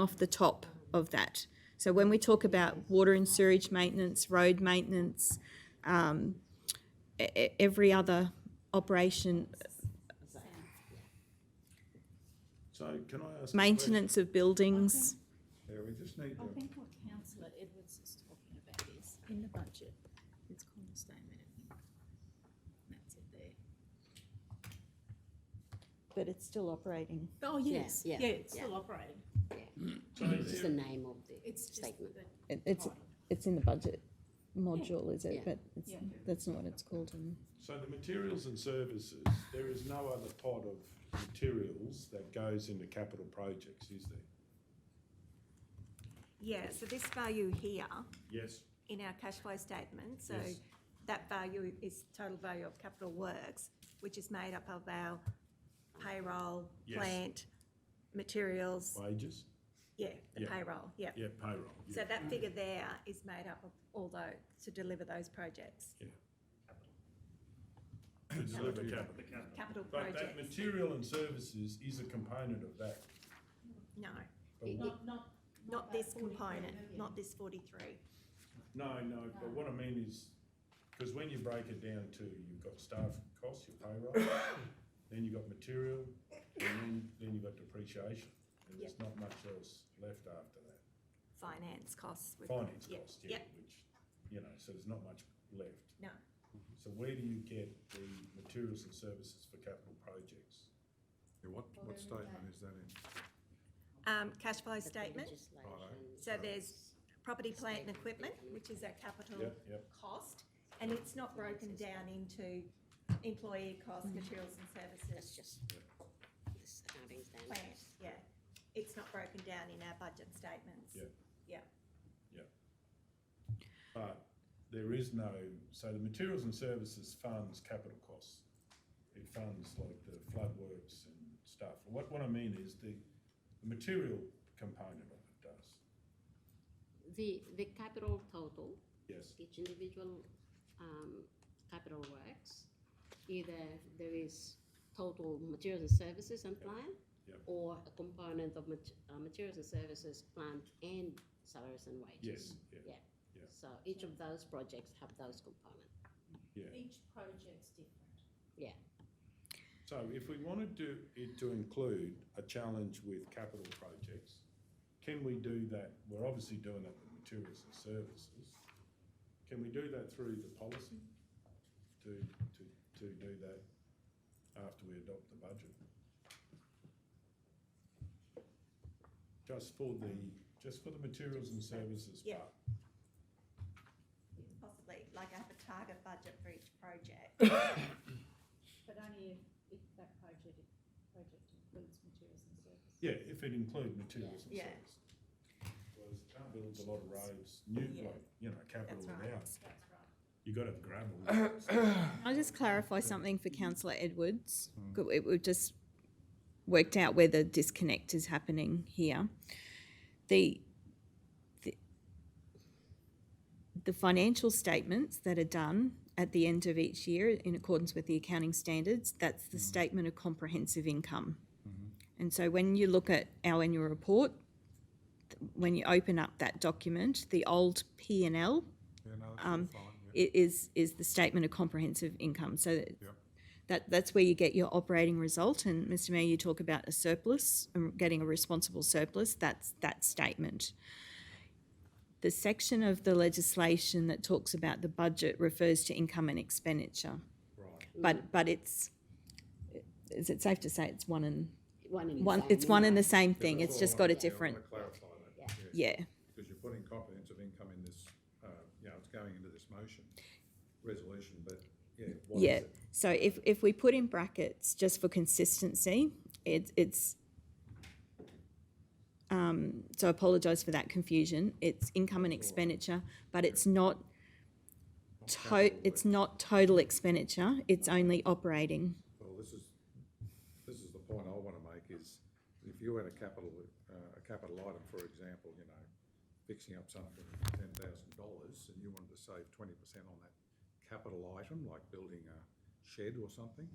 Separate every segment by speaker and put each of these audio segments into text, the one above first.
Speaker 1: off the top of that. So when we talk about water and sewerage maintenance, road maintenance, um, e- e- every other operation,
Speaker 2: So can I ask? a
Speaker 1: maintenance of buildings.
Speaker 2: question? Yeah, we just need
Speaker 3: I
Speaker 2: to,
Speaker 3: think what councillor Edwards is talking about is in the budget, it's cornerstone management. That's it there.
Speaker 1: But it's still operating.
Speaker 3: Oh, yes, yeah,
Speaker 4: yeah,
Speaker 3: it's
Speaker 4: yeah.
Speaker 3: still operating.
Speaker 4: It's just the name of the
Speaker 3: It's just
Speaker 4: statement.
Speaker 3: that
Speaker 1: It's, it's in the budget module, is it?
Speaker 4: Yeah.
Speaker 1: But it's,
Speaker 3: Yeah.
Speaker 1: that's not what it's called in.
Speaker 2: so the materials and services, there is no other pot of materials that goes into capital projects, is there?
Speaker 5: Yeah, so this value here
Speaker 2: Yes.
Speaker 5: in our cash flow statement, so
Speaker 2: Yes.
Speaker 5: that value is total value of capital works, which is made up of our payroll,
Speaker 2: Yes.
Speaker 5: plant, materials,
Speaker 2: Wages?
Speaker 5: yeah, the
Speaker 2: Yeah.
Speaker 5: payroll, yeah.
Speaker 2: Yeah, payroll.
Speaker 5: So
Speaker 2: yeah.
Speaker 5: that figure there is made up of all those, to deliver those projects,
Speaker 2: To deliver capital.
Speaker 5: capital
Speaker 2: But that
Speaker 5: projects,
Speaker 2: material and services is a component of that.
Speaker 5: no,
Speaker 2: But what-
Speaker 3: Not, not.
Speaker 5: not this component, not this forty-three.
Speaker 2: No, no, but what I mean is, because when you break it down to, you've got staff costs, your payroll, then you've got material, and then, then you've got depreciation. And there's not much else left after that.
Speaker 5: Finance costs. we've got-
Speaker 2: finance
Speaker 5: yeah,
Speaker 2: cost, yeah,
Speaker 5: yeah,
Speaker 2: which, you know, so there's not much left.
Speaker 5: No,
Speaker 2: So where do you get the materials and services for capital projects?
Speaker 6: Yeah, what, what statement is that in?
Speaker 5: um, cash flow
Speaker 4: But the
Speaker 5: statement,
Speaker 4: legislation-
Speaker 5: so there's property, plant and equipment, which is our capital
Speaker 2: Yep, yep,
Speaker 5: cost, and it's not broken down into employee costs, materials and
Speaker 4: That's
Speaker 5: services,
Speaker 4: just this accounting standard.
Speaker 5: plant, yeah. It's not broken down in our budget statements.
Speaker 2: Yeah.
Speaker 5: Yeah,
Speaker 2: but there is no, so the materials and services funds capital costs. It funds like the flood works and stuff. What, what I mean is the, the material component of it does,
Speaker 4: The, the capital total,
Speaker 2: yes,
Speaker 4: each individual, um, capital works, either there is total materials and services and plant,
Speaker 2: Yeah.
Speaker 4: or a component of mat- uh, materials and services, plant and salaries and wages.
Speaker 2: yes, yeah, Yeah.
Speaker 4: So each of those projects have those components.
Speaker 2: yeah.
Speaker 3: Each project's different.
Speaker 2: So if we wanted to, it to include a challenge with capital projects, Can we do that, we're obviously doing that with materials and services. Can we do that through the policy? To, to, to do that after we adopt the budget? Just for the, just for the materials and services
Speaker 5: Yeah.
Speaker 2: part?
Speaker 5: possibly, like I have a target budget for each project.
Speaker 3: But only if, if that project, project includes materials and services.
Speaker 2: Yeah, if it include materials and
Speaker 5: Yeah.
Speaker 2: services. Whereas you can't build a lot of roads, new,
Speaker 5: Yeah.
Speaker 2: like, you know, capital
Speaker 5: That's right.
Speaker 2: without,
Speaker 3: That's right.
Speaker 2: you gotta have gravel.
Speaker 1: I'll just clarify something for councillor Edwards. Good, It, we've just worked out where the disconnect is happening here. The, the, the financial statements that are done at the end of each year in accordance with the accounting standards, that's the statement of comprehensive income. And so when you look at our annual report, th- when you open up that document, the old P and L
Speaker 6: Yeah, no, that's
Speaker 5: Um,
Speaker 6: all fine, yeah.
Speaker 1: i- is is the statement of comprehensive income. So that-
Speaker 6: Yep.
Speaker 1: that that's where you get your operating result. And Mr. Mayor, you talk about a surplus and getting a responsible surplus. That's that statement. The section of the legislation that talks about the budget refers to income and expenditure,
Speaker 2: Right,
Speaker 4: Mm.
Speaker 1: but but it's is it safe to say it's one and
Speaker 4: One in the
Speaker 1: one?
Speaker 4: same,
Speaker 1: It's one and
Speaker 4: anyway.
Speaker 1: the same
Speaker 6: Yeah,
Speaker 1: thing.
Speaker 6: that's
Speaker 1: It's
Speaker 6: all
Speaker 1: just
Speaker 6: I
Speaker 1: got a
Speaker 6: wanted to- I
Speaker 1: different
Speaker 6: wanna Clarify
Speaker 4: Yeah.
Speaker 6: that, yeah,
Speaker 1: yeah.
Speaker 6: because you're putting comprehensive income in this, uh, you know, it's going into this motion, resolution, but, yeah, what
Speaker 1: Yeah,
Speaker 6: is it?
Speaker 1: so if, if we put in brackets, just for consistency, it, it's, um, so I apologise for that confusion, it's income and expenditure, but it's not to,
Speaker 6: capital
Speaker 1: it's not total expenditure, it's only operating.
Speaker 6: Well, this is, this is the point I wanna make is, if you had a capital, uh, a capital item, for example, you know, fixing up something for ten thousand dollars, and you wanted to save twenty percent on that capital item, like building a shed or something,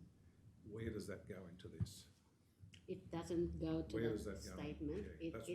Speaker 6: where does that go into this?
Speaker 4: It doesn't go to
Speaker 6: Where does
Speaker 4: the
Speaker 6: that go?
Speaker 4: statement,
Speaker 6: Yeah,
Speaker 4: it,
Speaker 6: that's
Speaker 4: it